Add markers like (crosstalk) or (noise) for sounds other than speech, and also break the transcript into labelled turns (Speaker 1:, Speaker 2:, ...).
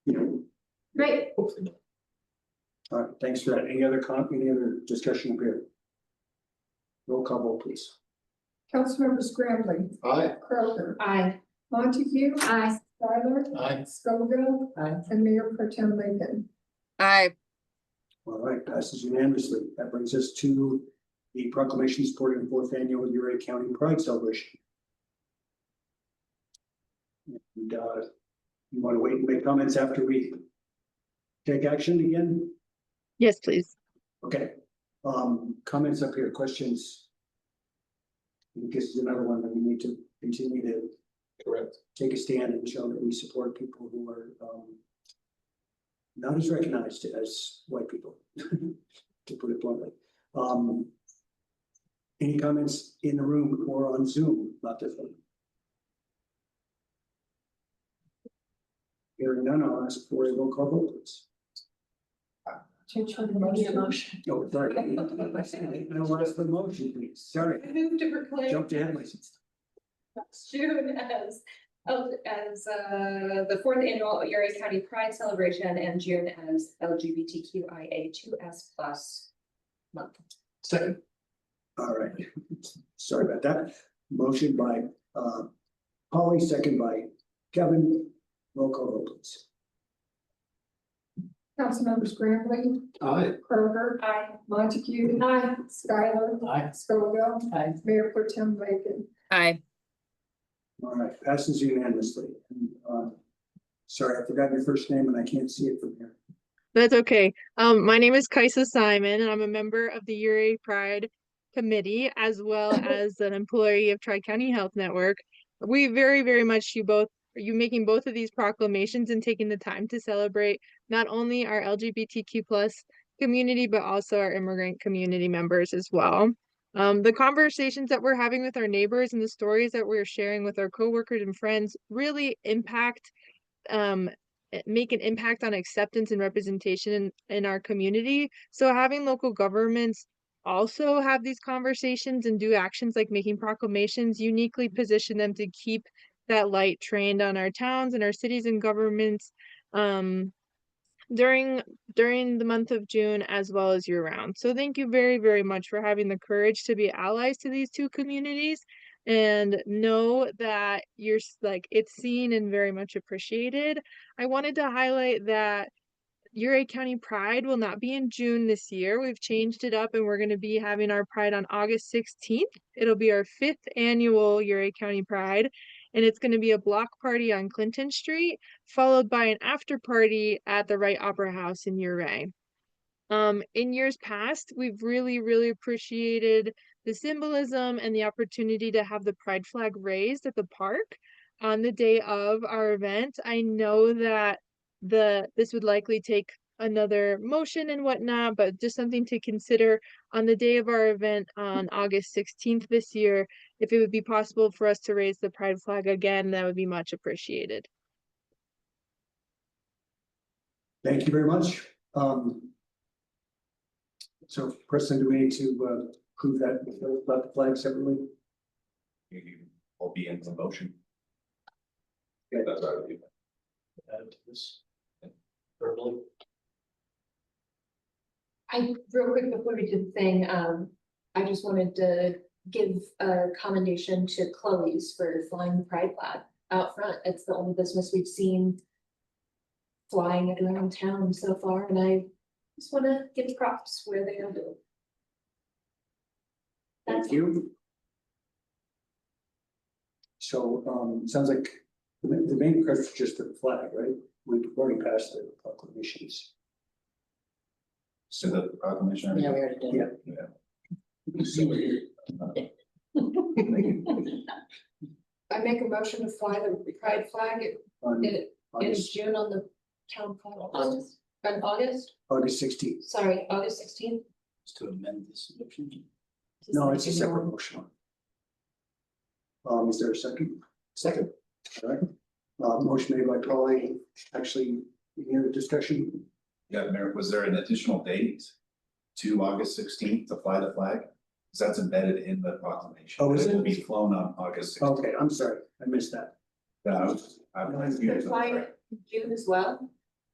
Speaker 1: Great,
Speaker 2: hopefully. not.
Speaker 3: All right, thanks for that. Any other con, any other discussion up here? Roll call vote, please.
Speaker 4: Councilmember Scrambling,
Speaker 2: Aye.
Speaker 4: Crowther,
Speaker 1: aye.
Speaker 4: Montague,
Speaker 1: Aye.
Speaker 4: Skylar,
Speaker 2: Aye.
Speaker 4: Scoville.
Speaker 2: Aye.
Speaker 4: And Mayor Pro Tem Lincoln.
Speaker 5: Aye,
Speaker 3: All right, passes unanimously. That brings us to the proclamation supporting the fourth annual Uray County Pride Celebration. And, uh, you want to wait and make comments after we take action again?
Speaker 5: yes, please.
Speaker 3: Okay, um, comments up here, questions? I think This is another one that we need to continue to
Speaker 2: Correct.
Speaker 3: take a stand and show that we support people who are, um. Not as recognized as white people, (laughs) to put it bluntly, um. Any comments in the room or on Zoom about this one? Hearing none, I'll ask for a roll call vote, please.
Speaker 4: Change your
Speaker 1: motion.
Speaker 3: Oh, sorry. I'll ask for the motion, please, sorry,
Speaker 1: Move to proclaim
Speaker 3: jumped ahead of myself.
Speaker 1: June as, L- as, uh, the fourth annual Erie County Pride Celebration and June as LGBTQIA two S plus month.
Speaker 2: Second.
Speaker 3: All right, sorry about that. Motion by uh Polly, second by Kevin. Roll call vote please.
Speaker 4: Councilmember Scrambling,
Speaker 2: Aye.
Speaker 4: Crowther,
Speaker 1: Aye.
Speaker 4: Montague,
Speaker 1: Aye.
Speaker 4: Skylar,
Speaker 2: Aye.
Speaker 4: Scoville.
Speaker 2: Aye.
Speaker 4: Mayor Pro Tem Lincoln.
Speaker 5: Aye,
Speaker 3: All right, passes unanimously. And, uh, Sorry, I forgot your first name and I can't see it from here.
Speaker 5: that's okay. Um, my name is Kaisa Simon, and I'm a member of the Uri Pride Committee, as well as an employee of Tri-County Health Network. We very, very much you both, you making both of these proclamations and taking the time to celebrate not only our LGBTQ plus community, but also our immigrant community members as well. Um, the conversations that we're having with our neighbors and the stories that we're sharing with our coworkers and friends really impact um, i- make an impact on acceptance and representation in, in our community. So having local governments also have these conversations and do actions like making proclamations uniquely position them to keep that light trained on our towns and our cities and governments um, during during the month of June as well as year round. So thank you very very much for having the courage to be allies to these two communities and know that you're s- like it's seen and very much appreciated. I wanted to highlight that Uray County Pride will not be in June this year. We've changed it up and we're going to be having our Pride on August 16th. It'll be our fifth annual Uray County Pride, and it's going to be a block party on Clinton Street, followed by an after party at the Wright Opera House in Uray. Um, in years past, we've really, really appreciated the symbolism and the opportunity to have the pride flag raised at the park on the day of our event. I know that the, this would likely take another motion and whatnot, but just something to consider on the day of our event on August sixteenth this year. If it would be possible for us to raise the pride flag again, that would be much appreciated.
Speaker 3: Thank you very much. Um. So Preston, do we need to uh prove that about the flag separately?
Speaker 6: you will be in the motion.
Speaker 3: Okay.
Speaker 6: That's what I would do.
Speaker 2: Add to this. Verbally.
Speaker 1: I, real quick, before we do the thing, um, I just wanted to give a commendation to Chloe's for flying the pride flag out front. It's the only business we've seen flying it around town so far, and I just wanna give props where they are due. That's
Speaker 3: Thank you. So, um, sounds like the, ma- the main question is just the flag, right? We've already passed the proclamations.
Speaker 6: So the proclamation. Yeah, we already
Speaker 3: did. Yeah.
Speaker 1: I make a motion to fly the pride flag in-
Speaker 3: On
Speaker 1: in, in
Speaker 3: August,
Speaker 1: June on the town hall. August. On August,
Speaker 3: August sixteenth.
Speaker 1: sorry, August sixteenth.
Speaker 2: To amend this motion.
Speaker 3: No, it's a separate motion. Um, is there a second? Second. All right. Uh, motion made by Polly, actually, any other discussion?
Speaker 6: Yeah, Mayor, was there an additional date to August sixteenth to fly the flag? Because that's embedded in the proclamation.
Speaker 3: Oh, is
Speaker 6: It will
Speaker 3: it?
Speaker 6: be flown on August sixteenth.
Speaker 3: Oh.
Speaker 6: Uh,
Speaker 3: Okay, I'm sorry, I missed that.
Speaker 6: I'm confused.
Speaker 1: Flying June as well?